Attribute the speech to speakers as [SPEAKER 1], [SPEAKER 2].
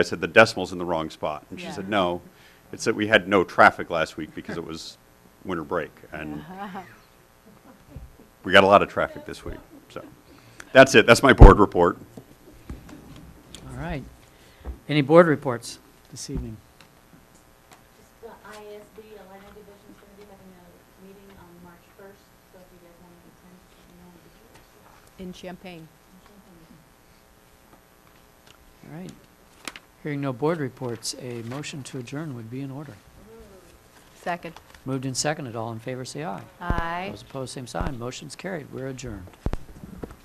[SPEAKER 1] I said, the decimal's in the wrong spot. And she
[SPEAKER 2] Yeah.
[SPEAKER 1] said, no, it's that we had no traffic last week because it was winter break. And we got a lot of traffic this week, so. That's it, that's my board report.
[SPEAKER 3] All right. Any board reports this evening?
[SPEAKER 4] Just The ISD, Atlanta Division's gonna be having a meeting on March first, so if you guys wanna attend, you know, we should.
[SPEAKER 2] in Champagne.
[SPEAKER 3] All right. Hearing no board reports, a motion to adjourn would be in order.
[SPEAKER 2] Second.
[SPEAKER 3] Moved and seconded, all in favor, say aye.
[SPEAKER 2] Aye.
[SPEAKER 3] Those opposed, same sign. Motion's carried. We're adjourned.